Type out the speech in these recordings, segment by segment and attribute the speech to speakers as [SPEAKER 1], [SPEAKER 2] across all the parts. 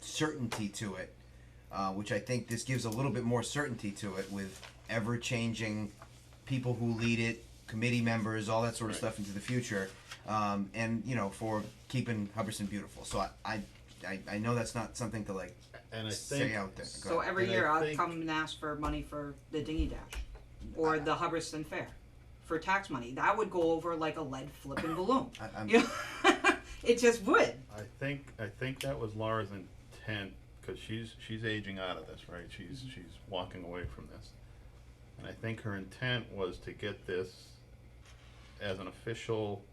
[SPEAKER 1] certainty to it, uh, which I think this gives a little bit more certainty to it with ever changing people who lead it, committee members, all that sort of
[SPEAKER 2] Right.
[SPEAKER 1] stuff into the future, um, and you know for keeping Hubbardston beautiful. So I, I, I, I know that's not something to like
[SPEAKER 2] And I
[SPEAKER 1] say
[SPEAKER 2] think,
[SPEAKER 1] out there. Go
[SPEAKER 3] So
[SPEAKER 1] ahead.
[SPEAKER 3] every
[SPEAKER 2] And I
[SPEAKER 3] year I'll
[SPEAKER 2] think-
[SPEAKER 3] come and ask for money for the dinghy dash, or the Hubbardston Fair, for tax money. That would go over like a lead flipping balloon.
[SPEAKER 1] I, I'm,
[SPEAKER 3] You know? it just would.
[SPEAKER 2] I think, I think that was Laura's intent, cause she's, she's aging out of this, right? She's,
[SPEAKER 3] Mm-hmm.
[SPEAKER 2] she's walking away from this. And I think her intent was to get this as an official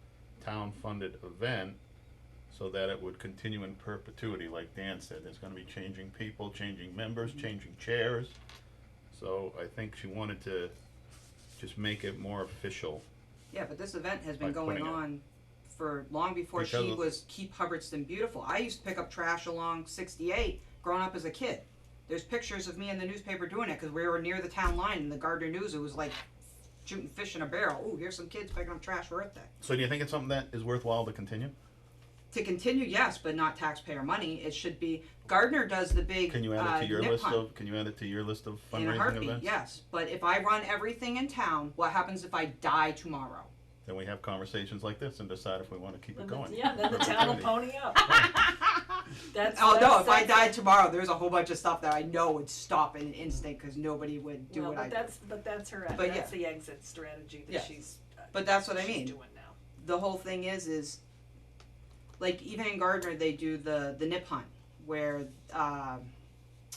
[SPEAKER 2] town-funded event so that it would continue in perpetuity, like Dan said, there's gonna be changing people, changing members,
[SPEAKER 3] Mm-hmm.
[SPEAKER 2] changing chairs. So I think she wanted to just make it more official.
[SPEAKER 3] Yeah, but this event has been
[SPEAKER 2] By
[SPEAKER 3] going
[SPEAKER 2] putting it-
[SPEAKER 3] on for long before
[SPEAKER 2] Because
[SPEAKER 3] she
[SPEAKER 2] of-
[SPEAKER 3] was keep Hubbardston beautiful. I used to pick up trash along 68 growing up as a kid. There's pictures of me in the newspaper doing it because we were near the town line and the Gardner News. It was like shooting fish in a barrel. Oh, here's some kids picking up trash for Earth Day.
[SPEAKER 2] So do you think it's something that is worthwhile to continue?
[SPEAKER 3] To continue, yes, but not taxpayer money. It should be Gardner does the big.
[SPEAKER 2] Can you add it
[SPEAKER 3] uh,
[SPEAKER 2] to your
[SPEAKER 3] nip
[SPEAKER 2] list
[SPEAKER 3] hunt.
[SPEAKER 2] of, can you add it to your list of
[SPEAKER 3] in a
[SPEAKER 2] fundraising
[SPEAKER 3] heartbeat,
[SPEAKER 2] events?
[SPEAKER 3] yes. But if I run everything in town, what happens if I die tomorrow?
[SPEAKER 2] Then we have conversations like this and decide if we wanna keep it
[SPEAKER 4] Then
[SPEAKER 2] going.
[SPEAKER 4] the- Yeah, then the town will pony up. That's.
[SPEAKER 3] Oh no!
[SPEAKER 4] that's-
[SPEAKER 3] If I
[SPEAKER 4] that's-
[SPEAKER 3] died tomorrow, there's a whole bunch of stuff that I know would stop in an instant because nobody would do
[SPEAKER 4] No,
[SPEAKER 3] what I
[SPEAKER 4] but
[SPEAKER 3] do.
[SPEAKER 4] that's, but that's her,
[SPEAKER 3] But
[SPEAKER 4] that's the exit strategy
[SPEAKER 3] Yeah.
[SPEAKER 4] that she's, uh,
[SPEAKER 3] But that's what I
[SPEAKER 4] she's
[SPEAKER 3] mean.
[SPEAKER 4] doing now.
[SPEAKER 3] The whole thing is, is like even in Gardner they do the the nip hunt where uh,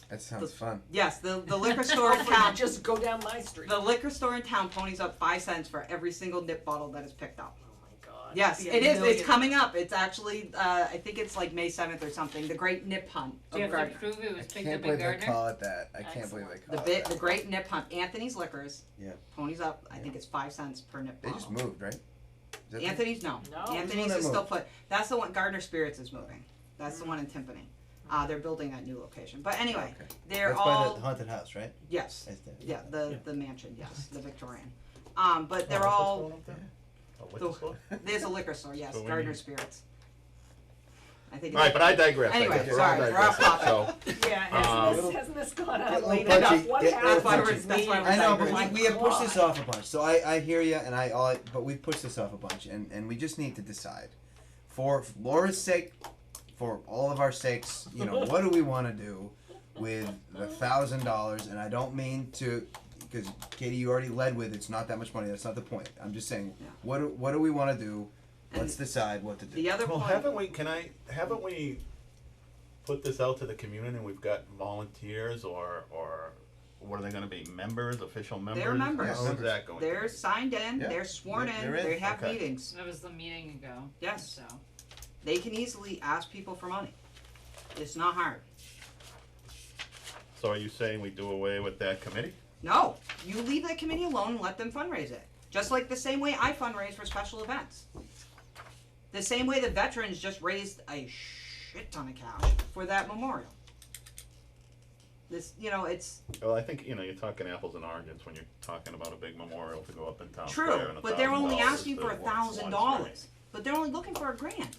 [SPEAKER 1] that sounds fun.
[SPEAKER 3] yes the the liquor store in
[SPEAKER 4] Hopefully you
[SPEAKER 3] town
[SPEAKER 4] Just go down my street. Oh
[SPEAKER 3] the liquor store in town ponies up five cents for every single nip bottle that is picked up.
[SPEAKER 4] Oh my god.
[SPEAKER 3] Yes,
[SPEAKER 4] Be a
[SPEAKER 3] it is. It's
[SPEAKER 4] million.
[SPEAKER 3] coming up. It's actually uh, I think it's like May seventh or something. The Great Nip Hunt
[SPEAKER 5] Do you
[SPEAKER 3] of
[SPEAKER 5] have to
[SPEAKER 3] Gardner.
[SPEAKER 5] prove it was
[SPEAKER 1] I
[SPEAKER 5] picked
[SPEAKER 1] can't
[SPEAKER 5] up in
[SPEAKER 1] believe they
[SPEAKER 5] Gardner?
[SPEAKER 1] call it that. I can't believe they
[SPEAKER 3] The
[SPEAKER 1] call it
[SPEAKER 3] bit,
[SPEAKER 1] that.
[SPEAKER 3] the Great Nip Hunt. Anthony's Liquors.
[SPEAKER 1] Yeah.
[SPEAKER 3] Ponies up. I
[SPEAKER 1] Yeah.
[SPEAKER 3] think it's five cents per nip
[SPEAKER 1] They
[SPEAKER 3] bottle.
[SPEAKER 1] just moved, right? Is that the-
[SPEAKER 3] Anthony's no.
[SPEAKER 4] No.
[SPEAKER 3] Anthony's
[SPEAKER 1] Who's
[SPEAKER 3] is
[SPEAKER 1] the one that
[SPEAKER 3] still put. That's the one. Gardner Spirits is moving. That's the one in Timpani. Uh, they're building that new location. But anyway,
[SPEAKER 1] Oh, Okay.
[SPEAKER 3] they're
[SPEAKER 1] That's
[SPEAKER 3] all
[SPEAKER 1] by the haunted house, right?
[SPEAKER 3] yes,
[SPEAKER 1] That's the-
[SPEAKER 3] yeah, the
[SPEAKER 2] Yeah. Oh,
[SPEAKER 3] the mansion, yes, the Victorian. Um, but they're all the- there's a liquor store, yes,
[SPEAKER 2] But we
[SPEAKER 3] Gardner
[SPEAKER 2] need-
[SPEAKER 3] Spirits. I think.
[SPEAKER 2] Alright,
[SPEAKER 3] it's-
[SPEAKER 2] but I digress, I
[SPEAKER 3] Anyway,
[SPEAKER 2] guess. We're all
[SPEAKER 3] sorry, we're off
[SPEAKER 2] digressing,
[SPEAKER 3] topic.
[SPEAKER 2] so-
[SPEAKER 4] Yeah,
[SPEAKER 2] Um,
[SPEAKER 4] hasn't
[SPEAKER 1] Little-
[SPEAKER 4] this, hasn't this gone
[SPEAKER 1] Uh, get
[SPEAKER 4] on
[SPEAKER 1] little
[SPEAKER 4] late
[SPEAKER 1] punchy,
[SPEAKER 4] enough? What
[SPEAKER 1] get little
[SPEAKER 4] happened? Oh
[SPEAKER 3] That's why we're-
[SPEAKER 1] punchy.
[SPEAKER 3] that's why we're
[SPEAKER 1] I know, but
[SPEAKER 3] digressing.
[SPEAKER 1] we, we have pushed this
[SPEAKER 4] God.
[SPEAKER 1] off a bunch. So I, I hear you, and I all, but we've pushed this off a bunch, and, and we just need to decide, for Laura's sake, for all of our sakes, you know, what do we want to do with the thousand dollars? And I don't mean to, because Katie, you already led with it's not that much money. That's not the point. I'm just saying,
[SPEAKER 3] Yeah.
[SPEAKER 1] what do, what do we want to do?
[SPEAKER 3] And
[SPEAKER 1] Let's decide what to do.
[SPEAKER 3] The other
[SPEAKER 2] Well,
[SPEAKER 3] point.
[SPEAKER 2] haven't we, can I, haven't we put this out to the community and we've got volunteers or, or what are they gonna be, members, official members?
[SPEAKER 3] members.
[SPEAKER 2] How is that going? to
[SPEAKER 3] They're
[SPEAKER 2] be?
[SPEAKER 3] signed in,
[SPEAKER 1] Yeah,
[SPEAKER 3] they're sworn
[SPEAKER 1] they're-
[SPEAKER 3] in,
[SPEAKER 1] they're in.
[SPEAKER 3] they have
[SPEAKER 2] Okay.
[SPEAKER 3] meetings.
[SPEAKER 5] That was the meeting ago.
[SPEAKER 3] Yes.
[SPEAKER 5] So.
[SPEAKER 3] They can easily ask people for money. It's not hard.
[SPEAKER 2] So are you saying we do away with that committee?
[SPEAKER 3] No, you leave that committee alone and let them fundraise it. Just like the same way I fundraise for special events. The same way the veterans just raised a shit ton of cash for that memorial. This, you know, it's
[SPEAKER 2] Well, I think, you know, you're talking apples and oranges when you're talking about a big memorial to go up in town
[SPEAKER 3] true,
[SPEAKER 2] square and a
[SPEAKER 3] but they're
[SPEAKER 2] thousand
[SPEAKER 3] only
[SPEAKER 2] dollars
[SPEAKER 3] asking
[SPEAKER 2] to
[SPEAKER 3] for a
[SPEAKER 2] one- one
[SPEAKER 3] thousand
[SPEAKER 2] square.
[SPEAKER 3] dollars, but they're only looking for a grand.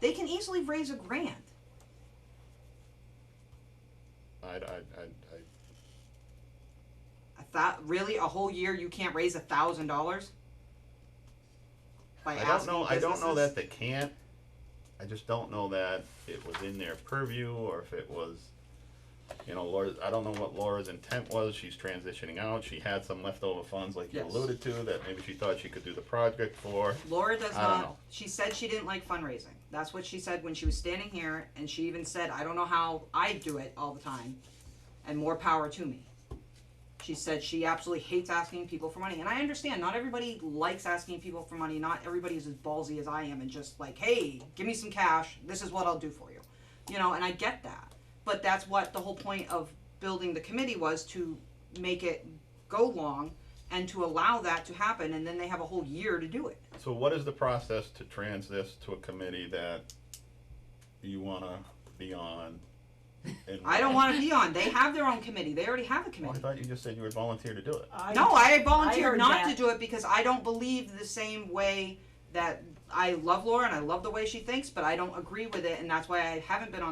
[SPEAKER 3] They can easily raise a grand.
[SPEAKER 2] I, I, I, I
[SPEAKER 3] A thou- really, a whole year you can't raise a thousand dollars?
[SPEAKER 2] I
[SPEAKER 3] By
[SPEAKER 2] don't
[SPEAKER 3] asking
[SPEAKER 2] know. I don't know that
[SPEAKER 3] businesses?
[SPEAKER 2] they can't. I just don't know that it was in their purview or if it was, you know, Laura. I don't know what Laura's intent was. She's transitioning out. She had some leftover funds, like you
[SPEAKER 3] Yes.
[SPEAKER 2] alluded to, that maybe she thought she could do the project for.
[SPEAKER 3] Laura does
[SPEAKER 2] I don't
[SPEAKER 3] not.
[SPEAKER 2] know.
[SPEAKER 3] She said she didn't like fundraising. That's what she said when she was standing here, and she even said, "I don't know how I do it all the time, and more power to me." She said she absolutely hates asking people for money, and I understand. Not everybody likes asking people for money. Not everybody is as ballsy as I am and just like, "Hey, give me some cash. This is what I'll do for you," you know. And I get that, but that's what the whole point of building the committee was to make it go long and to allow that to happen, and then they have a whole year to do it.
[SPEAKER 2] So, what is the process to trans this to a committee that you want to be on? And
[SPEAKER 3] I don't want to be on. They have their own committee. They already have a
[SPEAKER 2] Well, I
[SPEAKER 3] committee.
[SPEAKER 2] thought you just said you would volunteer to do it.
[SPEAKER 3] No, I volunteered
[SPEAKER 4] heard
[SPEAKER 3] not to
[SPEAKER 4] that.
[SPEAKER 3] do it because I don't believe the same way that I love Laura and I love the way she thinks, but I don't agree with it, and that's why I haven't been on